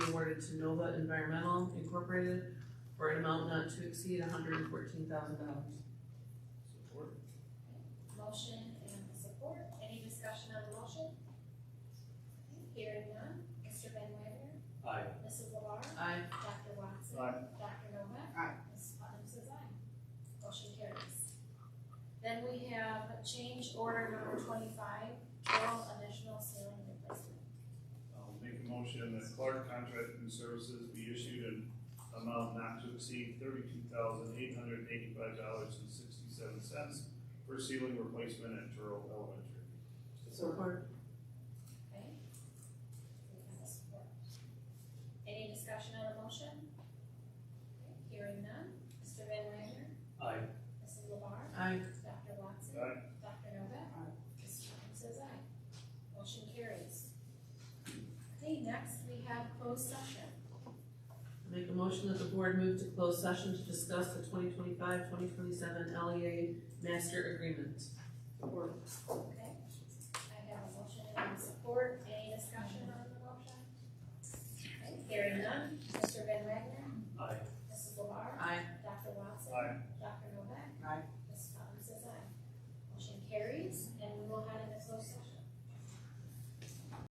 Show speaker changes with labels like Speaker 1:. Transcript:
Speaker 1: awarded to Nova Environmental Incorporated for an amount not to exceed hundred and fourteen thousand dollars.
Speaker 2: Support.
Speaker 3: Motion and support, any discussion on the motion? Hearing none, Mr. Van Wagner,
Speaker 2: Aye.
Speaker 3: Mrs. LaBarre,
Speaker 1: Aye.
Speaker 3: Dr. Watson.
Speaker 2: Aye.
Speaker 3: Dr. Novak.
Speaker 4: Aye.
Speaker 3: Mrs. Putnam says aye. Motion carries. Then we have change order number twenty-five, total additional ceiling replacement.
Speaker 5: I'll make a motion that Clark Contracting Services be issued an amount not to exceed thirty-two thousand eight hundred eighty-five dollars and sixty-seven cents for ceiling replacement at Turl Elementary.
Speaker 1: Support.
Speaker 3: Okay? We have a support. Any discussion on the motion? Okay, Hearing none, Mr. Van Wagner,
Speaker 2: Aye.
Speaker 3: Mrs. LaBarre,
Speaker 1: Aye.
Speaker 3: Dr. Watson.
Speaker 5: Aye.
Speaker 3: Dr. Novak.
Speaker 4: Aye.
Speaker 3: Mrs. Putnam says aye. Motion carries. Okay, next we have closed session.
Speaker 1: I Make a motion that the board move to close session to discuss the 2025-2027 LEA E master agreement.
Speaker 4: Support.
Speaker 3: Okay, I have a motion and a support, any